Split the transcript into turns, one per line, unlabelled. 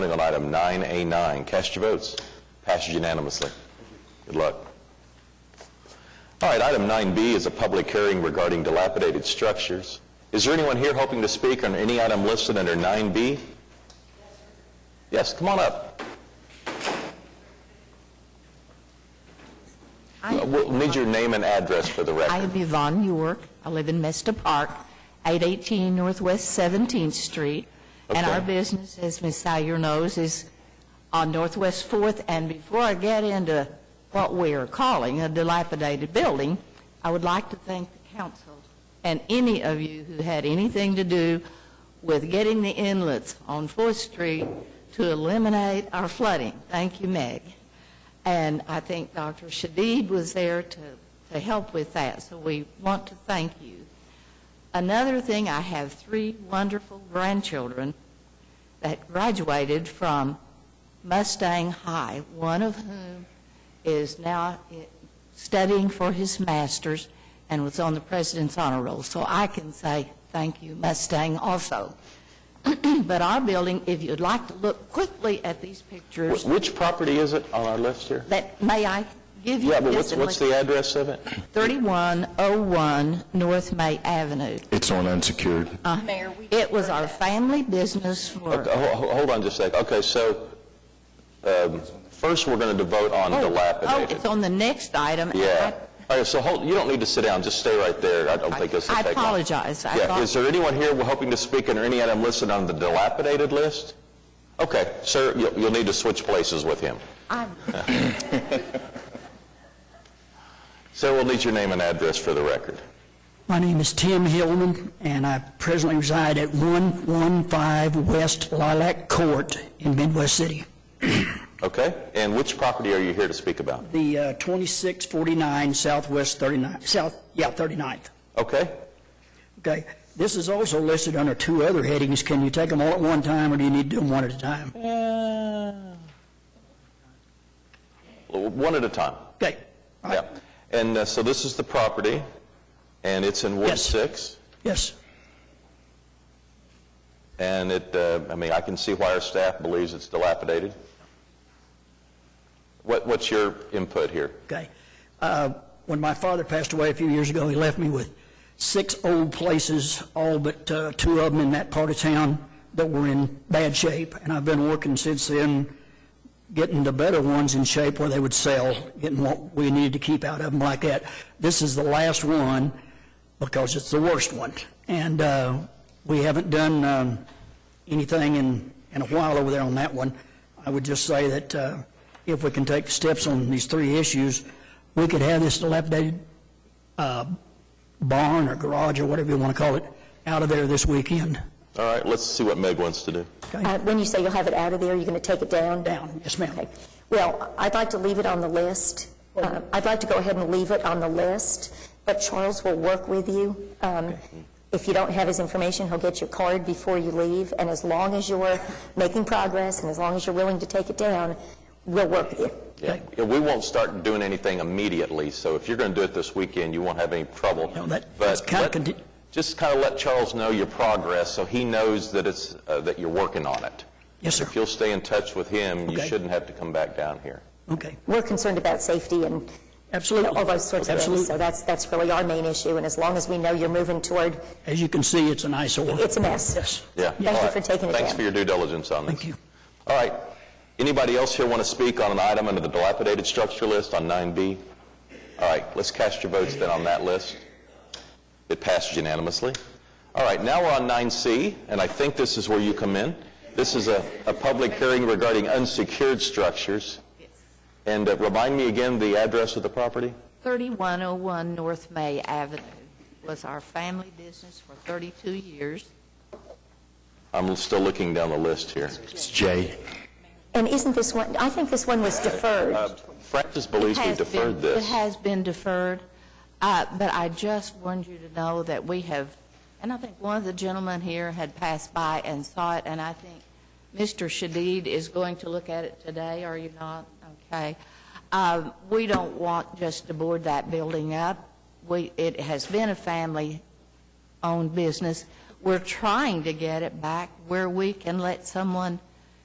Voting on item 9A9. Cast your votes. Passed unanimously. Good luck. All right, item 9B is a public hearing regarding dilapidated structures. Is there anyone here hoping to speak on any item listed under 9B? Yes, come on up.
I
Uh, We'll need your name and address for the
I
record.
am Yvonne York. I live in Mesta Park, 818 Northwest 17th Street. And
Okay.
our business, as Ms. Sire knows, is on Northwest 4th. And before I get into what we are calling a dilapidated building, I would like to thank the council and any of you who had anything to do with getting the inlets on 4th Street to eliminate our flooding. Thank you, Meg. And I think Dr. Shadid was there to, to help with that, so we want to thank you. Another thing, I have three wonderful grandchildren that graduated from Mustang High, one of whom is now i- studying for his master's and was on the president's honor roll. So I can say thank you, Mustang, also. But our building, if you'd like to look quickly at these pictures,
Wh- Which property is it on our list here?
that, may I give you?
Yeah, but
this
what's
and
what's
let-
the address of it?
3101 North May Avenue. Uh,
It's on unsecured.
Mayor, we...
It was our family business for,
Okay, Uh, ho- ho- Hold on just a second. Okay, so um, first, we're going to vote on
oh,
dilapidated.
it's on the next item. and
Yeah. All right, so hold, you don't need to sit down, just stay right there. I don't
I-
think this will
I
take long.
apologize. I
Yeah,
thought-
is there anyone here hoping to speak under any item listed on the dilapidated list? Okay, sir, you'll, you'll need to switch places with him.
I'm-
Sir, we'll need your name and address for the record.
My name is Tim Hillman, and I presently reside at 115 West Lilac Court in Midwest City.
Okay? And which property are you here to speak about?
The uh, 2649 Southwest 39, South, yeah, 39th.
Okay?
Okay, this is also listed under two other headings. Can you take them all at one time, or do you need to do them one at a time?
Well, One at a time.
Okay, all
Yeah.
right.
And uh, so this is the property, and it's in Ward
Yes.
6?
yes,
And it, uh, I mean, I can see why our staff believes it's dilapidated. What, what's your input here?
okay. Uh, When my father passed away a few years ago, he left me with six old places, all but uh, two of them in that part of town that were in bad shape, and I've been working since then getting the better ones in shape where they would sell, getting what we needed to keep out of them like that. This is the last one because it's the worst one. And uh, we haven't done um, anything in, in a while over there on that one. I would just say that uh, if we can take steps on these three issues, we could have this dilapidated uh, barn or garage or whatever you want to call it out of there this weekend.
All right, let's see what Meg wants to do.
Okay.
Uh, When you say you'll have it out of there, you're going to take it down?
Down, yes, ma'am.
Okay. Well, I'd like to leave it on the list. Uh, I'd like to go ahead and leave it on the list, but Charles will work with you. Um, If you don't have his information, he'll get your card before you leave, and as long as you're making progress, and as long as you're willing to take it down, we'll work with you.
Yeah, Yeah, we won't start doing anything immediately, so if you're going to do it this weekend, you won't have any trouble.
No, that-
But
that's kinda
let-
conti-
Just kind of let Charles know your progress, so he knows that it's, uh, that you're working on it.
Yes, sir.
If you'll stay in touch with him, you
Okay.
shouldn't have to come back down here.
Okay,
We're concerned about safety and you
absolutely.
know, all those sorts of things,
Absolutely.
so that's, that's really our main issue, and as long as we know you're moving toward,
As you can see, it's an eyesore.
it's a mess.
Yes.
Yeah.
Thank you
All right.
for taking it
Thanks
down.
for your due diligence on this.
Thank you.
All right. Anybody else here want to speak on an item under the dilapidated structure list on 9B? All right, let's cast your votes then on that list. It passed unanimously. All right, now we're on 9C, and I think this is where you come in. This is a, a public hearing regarding unsecured structures. And uh, remind me again the address of the property?
3101 North May Avenue was our family business for 32 years.
I'm still looking down the list here.
It's J.
And isn't this one, I think this one was deferred.
Uh, Francis believes we
Has been-
deferred this.
It has been deferred, Uh, but I just wanted you to know that we have, and I think one of the gentlemen here had passed by and saw it, and I think Mr. Shadid is going to look at it today, are you not? Okay. Um, We don't want just to board that building up. We, it has been a family-owned business. We're trying to get it back where we can let someone